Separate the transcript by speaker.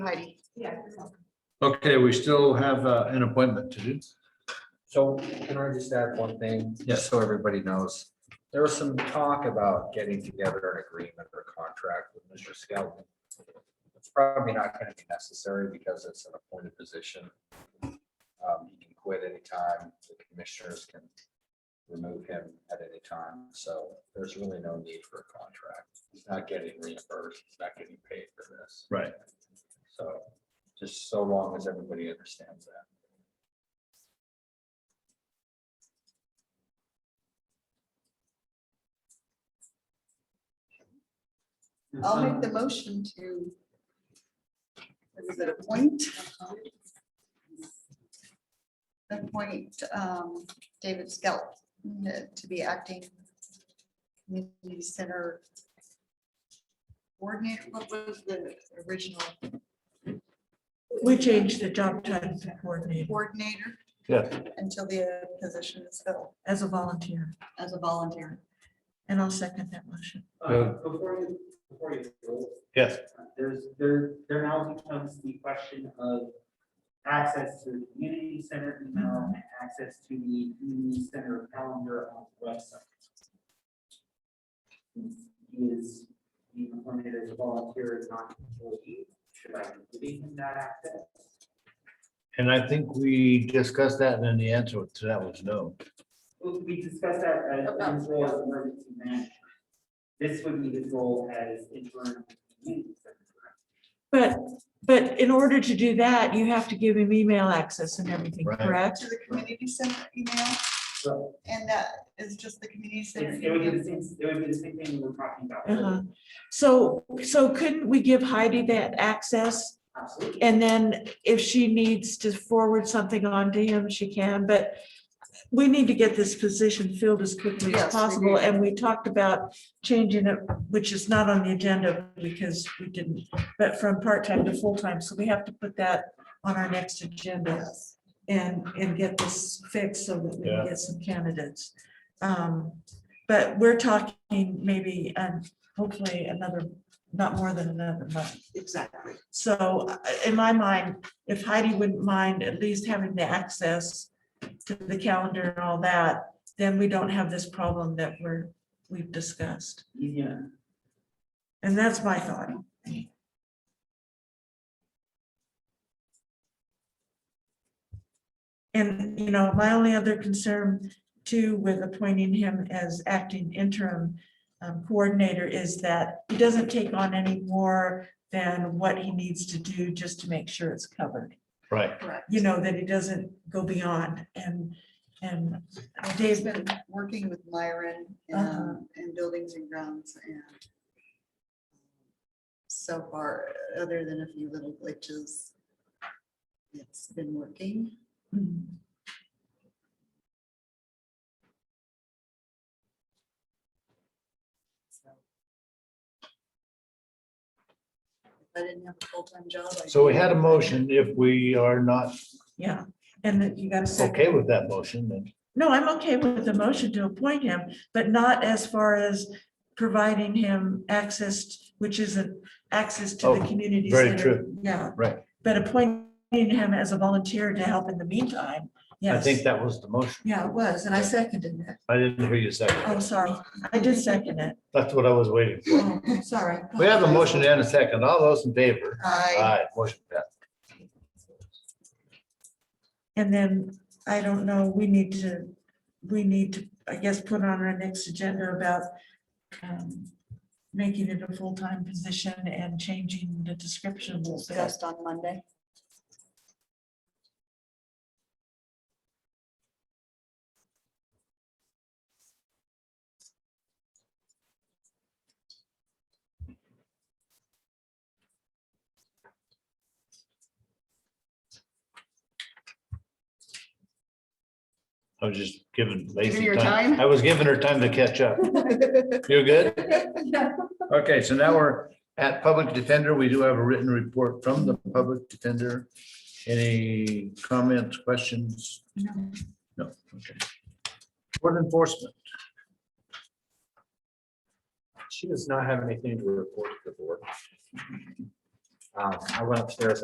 Speaker 1: Heidi.
Speaker 2: Yeah.
Speaker 3: Okay, we still have uh, an appointment to do.
Speaker 4: So can I just add one thing?
Speaker 3: Yes.
Speaker 4: So everybody knows, there was some talk about getting together an agreement or contract with Mr. Skelton. It's probably not gonna be necessary because it's an appointed position. Um, he can quit anytime, the commissioners can remove him at any time, so there's really no need for a contract. He's not getting reimbursed, he's not getting paid for this.
Speaker 3: Right.
Speaker 4: So, just so long as everybody understands that.
Speaker 1: I'll make the motion to. Is it appoint? Appoint um, David Skelton to be acting community center coordinator. What was the original
Speaker 5: We changed the job title to coordinator
Speaker 1: coordinator?
Speaker 3: Yeah.
Speaker 1: Until the position is filled
Speaker 5: as a volunteer,
Speaker 1: as a volunteer.
Speaker 5: and I'll second that motion.
Speaker 3: Yeah.
Speaker 6: Uh, Before you, before you, go,
Speaker 3: Yes.
Speaker 6: uh, there's, there, there now becomes the question of access to the community center email and access to the community center calendar on the website. He is being appointed as a volunteer, is not an employee, should I be giving him that access?
Speaker 3: And I think we discussed that and then the answer to that was no.
Speaker 6: Well, We discussed that
Speaker 1: About-
Speaker 6: as his role as emergency manager. This would be his role as interim community secretary.
Speaker 5: But, but in order to do that, you have to give him email access and everything,
Speaker 3: Right.
Speaker 5: correct?
Speaker 1: To the community center email,
Speaker 6: So
Speaker 1: and that is just the community center.
Speaker 6: It's- It would be
Speaker 1: email.
Speaker 6: the same, it would be the same thing we were talking about.
Speaker 5: Uh-huh. So, so couldn't we give Heidi that access?
Speaker 6: Absolutely.
Speaker 5: And then if she needs to forward something on to him, she can, but we need to get this position filled as quickly
Speaker 1: Yes, we
Speaker 5: as possible.
Speaker 1: do.
Speaker 5: And we talked about changing it, which is not on the agenda because we didn't, but from part-time to full-time. So we have to put that on our next agenda
Speaker 1: Yes.
Speaker 5: and, and get this fixed so that we
Speaker 3: Yeah.
Speaker 5: can get some candidates. Um, But we're talking maybe, um, hopefully another, not more than another month.
Speaker 1: Exactly.
Speaker 5: So uh, in my mind, if Heidi wouldn't mind at least having the access to the calendar and all that, then we don't have this problem that we're, we've discussed.
Speaker 6: Yeah.
Speaker 5: And that's my thought. And, you know, my only other concern too with appointing him as acting interim um, coordinator is that he doesn't take on any more than what he needs to do just to make sure it's covered.
Speaker 3: Right.
Speaker 1: Correct.
Speaker 5: You know, that he doesn't go beyond and, and uh,
Speaker 1: Dave's
Speaker 5: Dave,
Speaker 1: been working with Myron
Speaker 5: Uh-huh.
Speaker 1: um, and Buildings and Grounds and um, so far, other than a few little glitches, it's been working.
Speaker 5: mm,
Speaker 1: so. If I didn't have a full-time job. I'd
Speaker 3: So we had a motion. If we are not
Speaker 5: yeah, and that you got to say.
Speaker 3: okay with that motion, then
Speaker 5: No, I'm okay with the motion to appoint him, but not as far as providing him access, which isn't access to the
Speaker 3: Oh,
Speaker 5: community.
Speaker 3: very
Speaker 5: center.
Speaker 3: true.
Speaker 5: Yeah.
Speaker 3: Right.
Speaker 5: But appointing him as a volunteer to help in the meantime.
Speaker 3: I
Speaker 5: Yes.
Speaker 3: think that was the motion.
Speaker 5: Yeah, it was, and I seconded it.
Speaker 3: I didn't hear you second.
Speaker 5: Oh, sorry. I did second it.
Speaker 3: That's what I was waiting for.
Speaker 5: Oh, Sorry.
Speaker 3: We have a motion and a second. All those in favor?
Speaker 1: I,
Speaker 3: Aye, motion passed.
Speaker 5: And then, I don't know, we need to, we need to, I guess, put on our next agenda about um, making it a full-time position and changing the description a little bit.
Speaker 1: discussed on Monday.
Speaker 3: I was just giving Lacey
Speaker 1: your
Speaker 3: time.
Speaker 1: time?
Speaker 3: I was giving her time to catch up. You're good? Okay, so now we're at public defender. We do have a written report from the public defender. Any comments, questions? No. No, okay. Court enforcement,
Speaker 4: She does not have anything to report to the board. Um, I went upstairs